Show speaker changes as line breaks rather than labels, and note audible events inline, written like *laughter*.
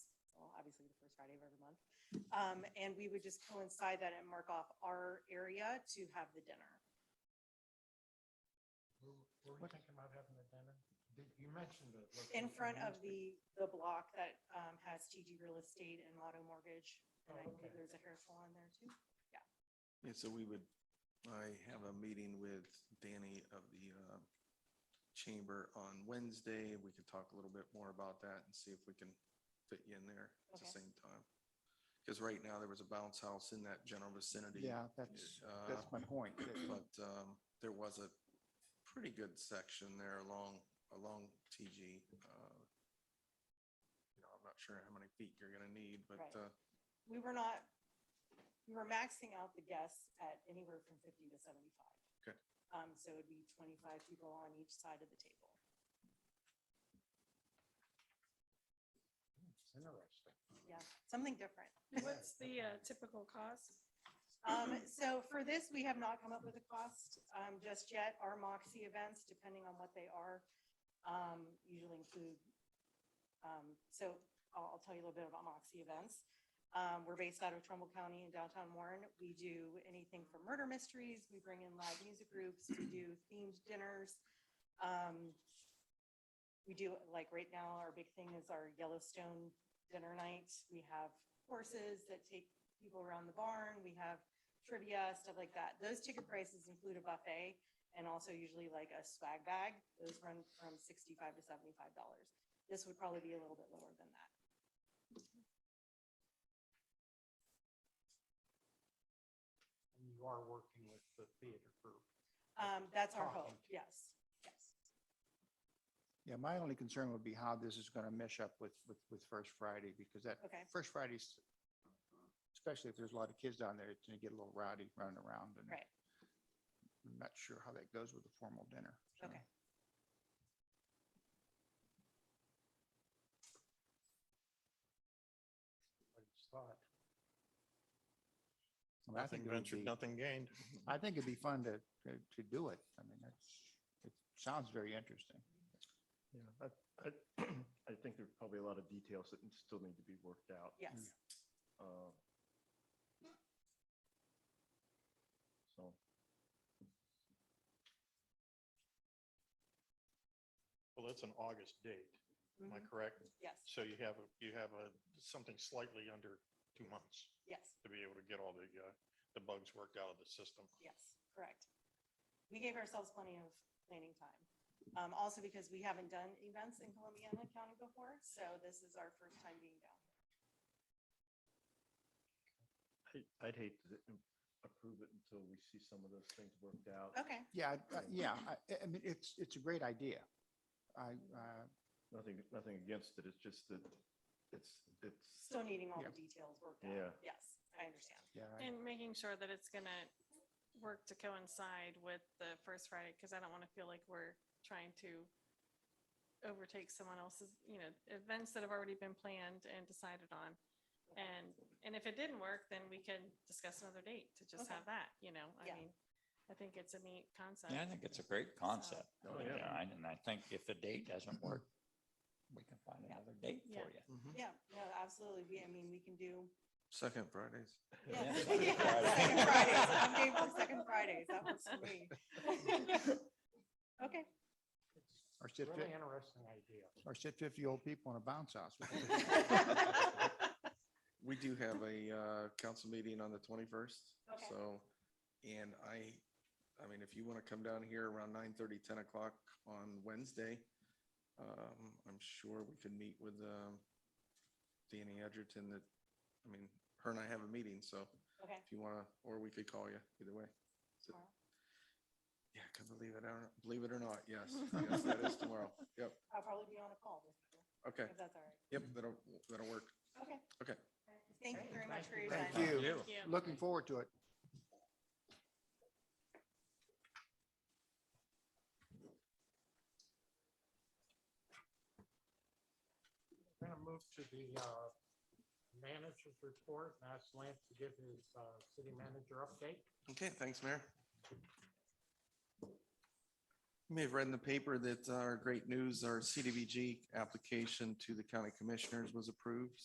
first Friday of every month. Um, and we would just coincide that and mark off our area to have the dinner.
Where were we thinking about having the dinner? Did- You mentioned it. like,
In
on
front of
Wednesday.
the, the block that, um, has TG Real Estate and Lotto Mortgage. And I
Oh,
believe
okay.
there's a hair salon there too.
Yeah, so we would, I have a meeting with Danny of the uh, Chamber on Wednesday. We could talk a little bit more about that and see if we can fit you in there at the
Okay.
same time. Because right now, there was a bounce house in that general vicinity.
Yeah, that's,
uh,
that's my point. that-
*clears throat* But um, there was a pretty good section there along, along TG. uh, You know, I'm not sure how many feet you're gonna need, but
Right.
uh,
We were not, we were maxing out the guests at anywhere from fifty to seventy-five.
Okay.
Um, so it'd be twenty-five people on each side of the table.
Hmm, It's interesting.
Yeah, something different.
What's the uh, typical cost?
Um, so for this, we have not come up with a cost, um, just yet. Our Moxie events, depending on what they are, um, usually include, um, so I'll, I'll tell you a little bit about Moxie events. Um, we're based out of Trumbull County in downtown Warren. We do anything from murder mysteries, we bring in live music groups, we do themed dinners. Um, we do, like, right now, our big thing is our Yellowstone dinner night. We have horses that take people around the barn. We have trivia, stuff like that. Those ticket prices include a buffet and also usually like a swag bag. Those run from sixty-five to seventy-five dollars. This would probably be a little bit lower than that.
And you are working with the theater group.
Um, that's our hope,
Coffee.
yes, yes.
Yeah, my only concern would be how this is going to mesh up with, with, with First Friday because that
Okay.
First Friday's, especially if there's a lot of kids down there, it's going to get a little rowdy running around and
Right.
I'm not sure how that goes with a formal dinner. so.
Okay.
I just thought.
I mean, I think it would be-
nothing gained.
I think it'd be fun to, to to do it. I mean, that's, it sounds very interesting.
Yeah, I, I, I think there's probably a lot of details that still need to be worked out.
Yes,
Oh. uh, So.
Well, that's an August date, am I
Mhm.
correct?
yes,
So you have, a- you have a, something slightly under two months
yes,
to be able to get all the, uh, the bugs worked out of the system.
yes, correct. We gave ourselves plenty of planning time. Um, also because we haven't done events in Columbiana County before, so this is our first time being down.
I- I'd hate to approve it until we see some of those things worked out.
Okay,
Yeah, I- I- yeah, I, I mean, it's, it's a great idea. I, uh,
Nothing, nothing against it, it's just that it's, it's,
still needing all the
Yeah.
details worked
Yeah.
out. Yes, I understand.
yeah, I-
And making sure that it's going to work to coincide with the first Friday, because I don't want to feel like we're trying to overtake someone else's, you know, events that have already been planned and decided on. And, and if it didn't work, then we can discuss another date to just
Okay.
have that, you know, I
Yeah.
mean, I think it's a neat concept.
Yeah, I think it's a great concept.
Oh,
you
yeah.
know, And and I think if the date doesn't work, we can find
Yeah.
another date for
Yeah.
you.
Yeah, no, absolutely. We, I mean, we can do.
Mm-hmm. Second Fridays.
Yeah, *laughs*
Yeah.
Second Fridays. I'm game for second Fridays. That works for me. Okay.
Or
It's
sit
a really
fit-
interesting idea.
or sit fifty old people in a
*laughs*
bounce house. *laughs*
*laughs*
We do have a uh, council meeting on the 21st,
Okay.
so, and I, I mean, if you want to come down here around 9:30, 10 o'clock on Wednesday, um, I'm sure we could meet with um, Danny Edgerton that, I mean, her and I have a meeting, so
Okay.
if you want to, or we could call you, either way. So-
Tomorrow?
Yeah, because believe it or, believe it or
*laughs*
not, yes, yes, that is tomorrow. Yep,
I'll probably be on a call with you,
okay,
if that's all right.
yep, that'll, that'll work.
Okay.
Okay.
Thank you very much for your time.
Thank you.
Thank you.
Looking forward to it.
We're going to move to the uh, manager's report and ask Lance to give his uh, city manager update.
Okay, thanks, Mayor. You may have read in the paper that our great news, our CDBG application to the county commissioners was approved.